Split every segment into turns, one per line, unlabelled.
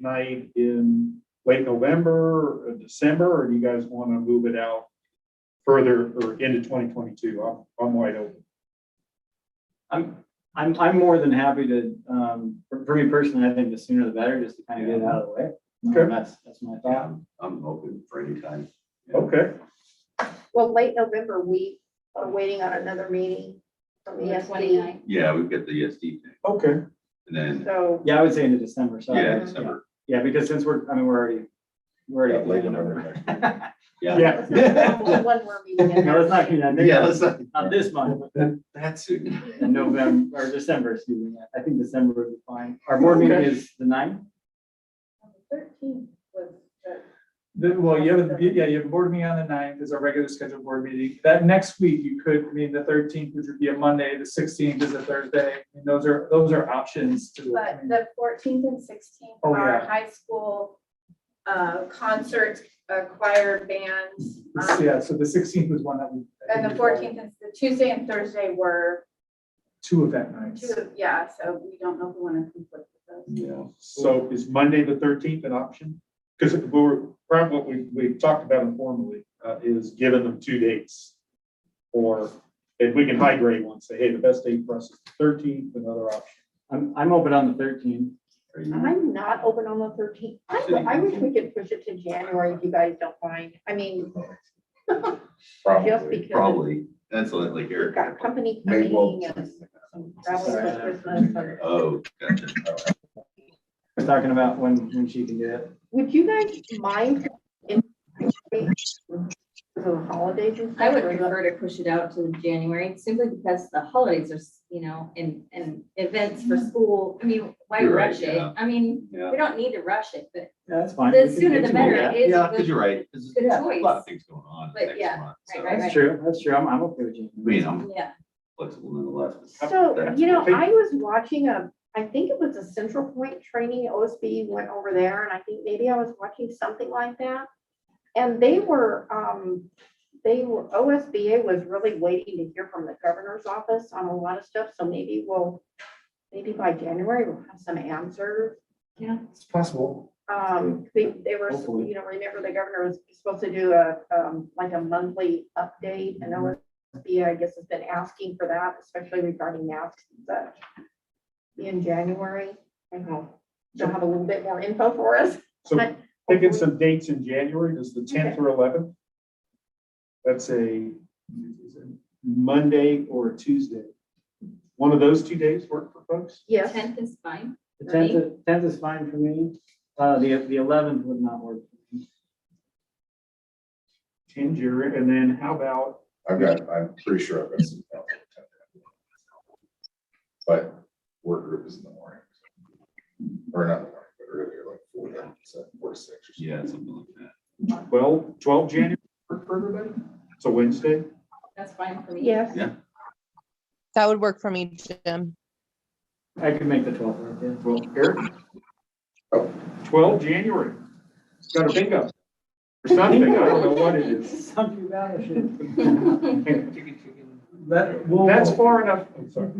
night in late November or December, or do you guys want to move it out further or into twenty twenty-two? I'm, I'm wide open.
I'm, I'm, I'm more than happy to, um, for, for me personally, I think the sooner the better, just to kind of get it out of the way.
Okay.
Um, That's, that's my thought.
I'm open for any time.
Okay,
Well, late November, we are waiting on another meeting from
The
ESP,
29th.
Yeah, we've got the ESD thing,
okay,
and then,
so,
Yeah, I would say into December, so.
yeah, December,
Yeah, because since we're, I mean, we're already, we're
Yeah,
already.
late November. Yeah,
yeah,
let's not go one more meeting. in
No,
there.
it's not, you know,
yeah,
not
let's not,
not this month,
that's soon.
in November, or December, excuse me, I think December would be fine. Our board meeting
Okay.
is the ninth,
Thirteenth was the.
Then, well, you have, a- yeah, you have a board meeting on the ninth is our regular scheduled board meeting. That next week, you could, I mean, the thirteenth, which would be a Monday, the sixteenth is a Thursday. And those are, those are options to. I
But
mean,
the fourteenth and sixteenth
Oh,
are
yeah.
high school uh, concerts, uh, choir bands.
this-
um,
Yeah, so the sixteenth was one that we. I
And
think
the
we called
fourteenth and the Tuesday and Thursday were
Two event nights.
two, of- yeah, so we don't know if we want to conflict with those.
Yeah,
so is Monday the thirteenth an option? Because we're, probably what we, we've talked about informally, uh, is giving them two dates. Or if we can high grade one, say, hey, the best date for us is the thirteenth, another option.
I'm, I'm open on the thirteenth.
Are you-
I'm not open on the thirteenth. I, I wish we could push it to January if you guys don't mind. I mean, just
Probably,
because-
probably, that's like like
we've
Eric.
got company
May
coming
well-
and some travel for Christmas. but-
Oh, gotcha.
We're talking about when, when she can do it.
Would you guys mind? if we- The holidays and stuff?
I would
or is that-
prefer
prefer to push it out to January simply because the holidays are, s- you know, and, and events for school. I mean, why
You're right,
rush it?
yeah.
I mean,
Yeah,
we don't need to rush it, but
Yeah, that's fine. We
the
can
sooner
get
the
to
better.
that.
It is
yeah,
the-
because you're right, there's
Good
a lot of
choice.
things going on
But
next
yeah,
month, so,
right,
I
right.
That's true, that's true, I'm, I'm okay with you.
mean, I'm
yeah,
flexible nonetheless.
So,
That's-
you know,
Okay.
I was watching a, I think it was a Central Point training, OSB went over there, and I think maybe I was watching something like that. And they were, um, they were, OSBA was really waiting to hear from the governor's office on a lot of stuff, so maybe we'll, maybe by January, we'll have some answers.
It's possible.
Um, they, they were,
Hopefully.
you know, remember the governor was supposed to do a, um, like a monthly update and OSBA, I guess, has been asking for that, especially regarding masks and such. In January, I hope they'll have a little bit more info for us.
So
But-
picking some dates in January, does the tenth or eleventh? That's a Monday or a Tuesday. One of those two days work for folks?
Yes,
tenth is fine.
The tenth, tenth is fine for me, uh, the, the eleventh would not work.
Ten January, and then how about,
I've got, I'm pretty sure I've got some. conflict on that. But work group is in the morning. Or not in the morning, but earlier, like four, to- so four, to six or something.
Yeah, something like that.
well, twelve January work for everybody? It's a Wednesday.
That's fine for me.
yes.
Yeah.
That would work for me, Jim.
I could make the twelfth, work, yeah.
Well, Eric? Twelve January. Got a bingo. Or something, I don't know what it is.
Something about it.
That, well.
That's far enough, I'm sorry.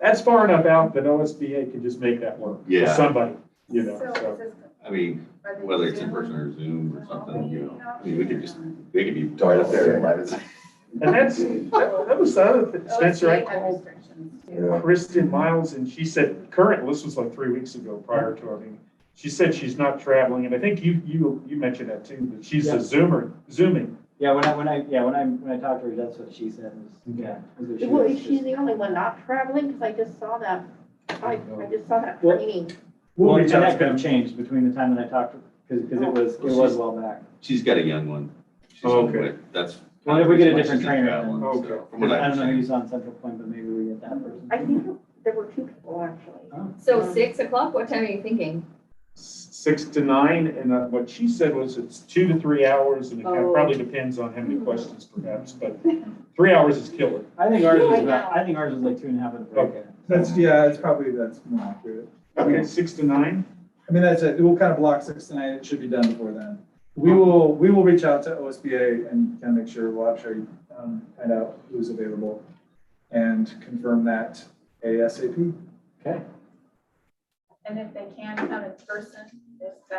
That's far enough out that OSBA can just make that work. for
Yeah.
Somebody, you know,
So
so.
is this-
I mean,
are they
whether it's in
Zoom?
person or Zoom or something, you know, I mean, we could just,
Oh,
they could be.
Right up there, right as-
And that's, that that was the other, thing,
Oh,
Spencer, I
OSBA had
called
restrictions too.
Yeah.
Kristen Miles and she said, current, this was like three weeks ago prior to our meeting. She said she's not traveling and I think you, you, you mentioned that too, that she's a
Yeah.
Zoomer, Zooming.
Yeah, when I, when I, yeah, when I, when I talked to her, that's what she said, was, yeah. was what she
Well,
was
is she
just-
the only one not traveling? Because I just saw that, I, I just saw that
Well-
training.
Well,
We'll
and
reach out
that
to
could have
them.
changed between the time that I talked to her, because, because it was, it was a while back.
She's got a young one. She's
Oh,
on
okay.
it. That's.
Well, if we get a different trainer,
That one,
then-
so, from
I
what I
don't know
understand.
who's on Central Point, but maybe we get that person.
I think there were two people actually.
So six o'clock, what time are you thinking?
s- six to nine, and uh, what she said was it's two to three hours, and it kind of
Oh.
probably depends on how many questions perhaps, but three hours is killer.
I think ours was
Right
about,
now.
I think ours was like two and a half at the break.
Okay.
That's, yeah, it's probably, that's more accurate.
Okay, six to nine?
I mean, that's it. We'll kind of block six tonight. It should be done before then. We will, we will reach out to OSBA and kind of make sure, we'll actually um, find out who's available and confirm that ASAP.
Okay.
And if they can come in person, if that